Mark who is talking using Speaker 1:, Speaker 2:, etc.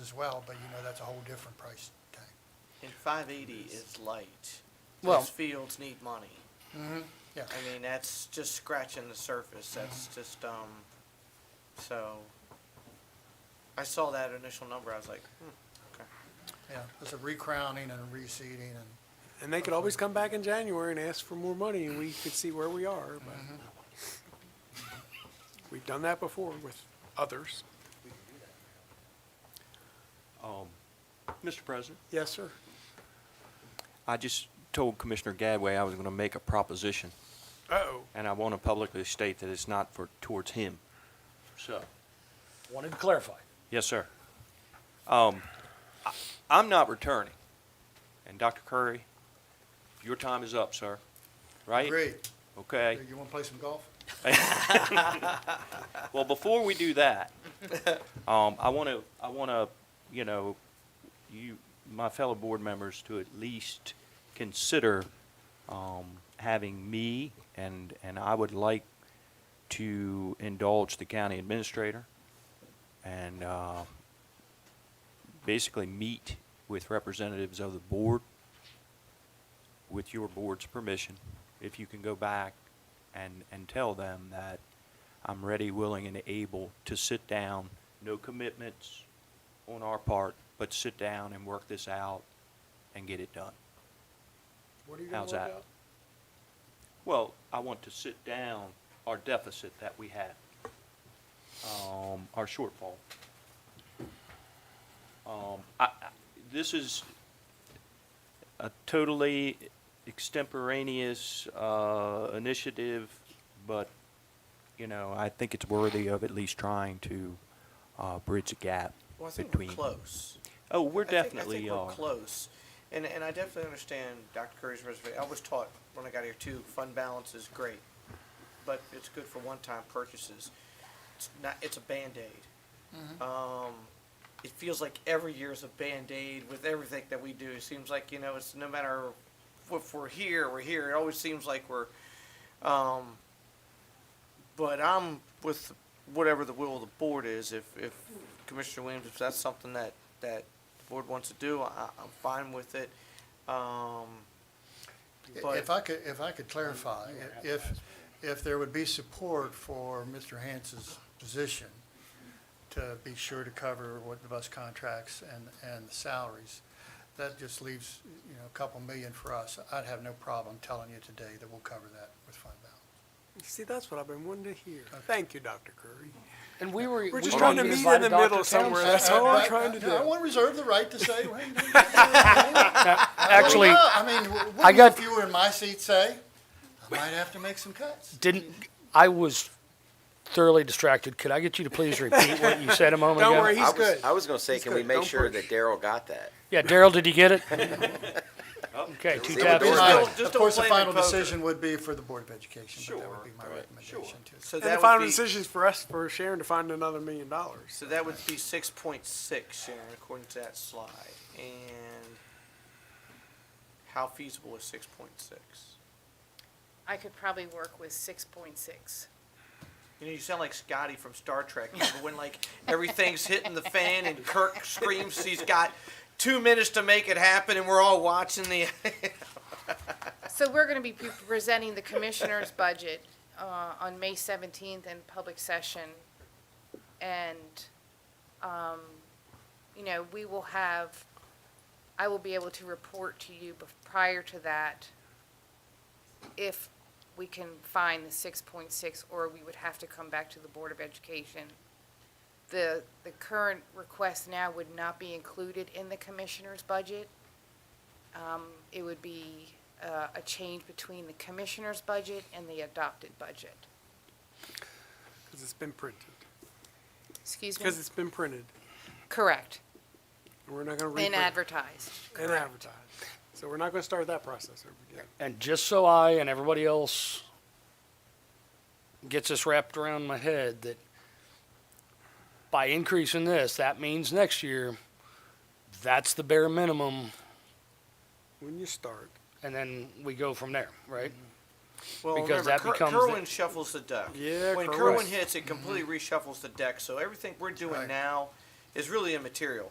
Speaker 1: as well, but you know, that's a whole different price tag.
Speaker 2: And five eighty is light.
Speaker 3: Well-
Speaker 2: Those fields need money.
Speaker 1: Mm-hmm. Yeah, Mm-hmm.
Speaker 2: I mean, that's just scratching the surface. That's just, um, so. I saw that initial number. I was like, hmm, okay.
Speaker 1: yeah, it's a recrowning and reseeding and,
Speaker 3: And they could always come back in January and ask for more money, and we could see where we are, but Mm-hmm. we've done that before with others.
Speaker 4: Mr. President?
Speaker 3: Yes, sir.
Speaker 4: I just told Commissioner Gadway I was going to make a proposition,
Speaker 3: Uh-oh.
Speaker 4: and I want to publicly state that it's not for, towards him. So.
Speaker 5: Wanted to clarify.
Speaker 4: Yes, sir. Um, I- I'm not returning. And Dr. Curry, your time is up, sir, right?
Speaker 1: agreed.
Speaker 4: Okay.
Speaker 1: You wanna play some golf?
Speaker 2: hmm.
Speaker 4: Well, before we do that, um, I want to, I want to, you know, you, my fellow board members to at least consider, um, having me and, and I would like to indulge the county administrator and, uh, basically meet with representatives of the board with your board's permission, if you can go back and, and tell them that I'm ready, willing, and able to sit down, no commitments on our part, but sit down and work this out and get it done.
Speaker 3: What are you gonna
Speaker 4: How's
Speaker 3: work
Speaker 4: that?
Speaker 3: out?
Speaker 4: Well, I want to sit down our deficit that we had, um, our shortfall. Um, I, I, this is a totally extemporaneous, uh, initiative, but, you know, I think it's worthy of at least trying to, uh, bridge a gap
Speaker 2: Well, I think we're
Speaker 4: between.
Speaker 2: close.
Speaker 4: Oh, we're
Speaker 2: I think- I
Speaker 4: definitely uh,
Speaker 2: think we're
Speaker 4: are.
Speaker 2: close. And, and I definitely understand Dr. Curry's reservation. I was taught when I got here too, fund balance is great, but it's good for one-time purchases. It's not, it's a Band-Aid. Um, it feels like every year is a Band-Aid with everything that we do. It seems like, you know, it's no matter if we're here, we're here. It always seems like we're, um, but I'm with whatever the will of the board is. If, if Commissioner Williams, if that's something that, that the board wants to do, I, I'm fine with it. Um,
Speaker 1: I-
Speaker 2: But-
Speaker 1: If I could, if I could clarify, i- if, if there would be support for Mr. Hans's position to be sure to cover what the bus contracts and, and the salaries, that just leaves, you know, a couple million for us. I'd have no problem telling you today that we'll cover that with fund balance.
Speaker 3: See, that's what I've been wanting to hear. Thank you, Dr. Curry.
Speaker 5: And we were.
Speaker 3: We're
Speaker 5: we
Speaker 3: just
Speaker 5: were
Speaker 3: trying to
Speaker 5: gonna
Speaker 3: meet
Speaker 5: invite
Speaker 3: in the
Speaker 5: a Dr.
Speaker 3: middle somewhere.
Speaker 5: Townsend.
Speaker 3: That's all I'm
Speaker 1: I-
Speaker 3: trying to
Speaker 1: Uh, I- I
Speaker 3: do.
Speaker 1: want to reserve the right to say, well, you know,
Speaker 5: Actually,
Speaker 1: Well, I mean, w-
Speaker 5: I
Speaker 1: wouldn't
Speaker 5: got-
Speaker 1: if you were in my seat say, I might have to make some cuts.
Speaker 5: didn't, I was thoroughly distracted. Could I get you to please repeat what you said a moment ago?
Speaker 3: Don't worry, he's
Speaker 6: Oh I was,
Speaker 3: good.
Speaker 6: I was gonna say,
Speaker 3: He's
Speaker 6: can we
Speaker 3: good.
Speaker 6: make
Speaker 3: Don't
Speaker 6: sure
Speaker 3: push.
Speaker 6: that Daryl got that?
Speaker 5: Yeah, Daryl, did you get it? Okay, two
Speaker 6: See,
Speaker 5: taps.
Speaker 6: we're
Speaker 5: is
Speaker 6: doing
Speaker 5: good.
Speaker 6: it.
Speaker 2: just don't
Speaker 1: Of course, the
Speaker 2: blame me,
Speaker 1: final
Speaker 2: poker.
Speaker 1: decision would be for the Board of Education, but that
Speaker 4: Sure,
Speaker 1: would be my
Speaker 4: right,
Speaker 1: recommendation
Speaker 4: sure.
Speaker 1: too.
Speaker 2: so
Speaker 3: And the
Speaker 2: that
Speaker 3: final
Speaker 2: would be,
Speaker 3: decision's for us, for Sharon to find another million dollars.
Speaker 2: so that would be six point six, Sharon, according to that slide. And how feasible is six point six?
Speaker 7: I could probably work with six point six.
Speaker 2: You know, you sound like Scotty from Star Trek. You know, when like everything's hitting the fan and Kirk screams he's got two minutes to make it happen, and we're all watching the.
Speaker 7: So we're gonna be pre- presenting the commissioner's budget, uh, on May seventeenth in public session. And, um, you know, we will have, I will be able to report to you bef- prior to that if we can find the six point six, or we would have to come back to the Board of Education. The, the current request now would not be included in the commissioner's budget. Um, It would be uh, a change between the commissioner's budget and the adopted budget.
Speaker 3: Because it's been printed.
Speaker 7: Excuse me?
Speaker 3: Because it's been printed.
Speaker 7: Correct,
Speaker 3: And we're not going to reprint
Speaker 7: and
Speaker 3: it.
Speaker 7: advertised.
Speaker 3: and advertise. So we're not going to start that process over again.
Speaker 5: And just so I and everybody else gets this wrapped around my head that by increasing this, that means next year, that's the bare minimum,
Speaker 3: When you start,
Speaker 5: and then we go from there, right?
Speaker 2: Well,
Speaker 5: Because
Speaker 2: remember,
Speaker 5: that
Speaker 2: Ker-
Speaker 5: becomes the-
Speaker 2: Kerwin shuffles the deck.
Speaker 3: Yeah,
Speaker 2: when
Speaker 3: correct. Mm-hmm.
Speaker 2: Kerwin hits, it completely reshuffles the deck. So everything we're doing
Speaker 1: Right.
Speaker 2: now is really immaterial.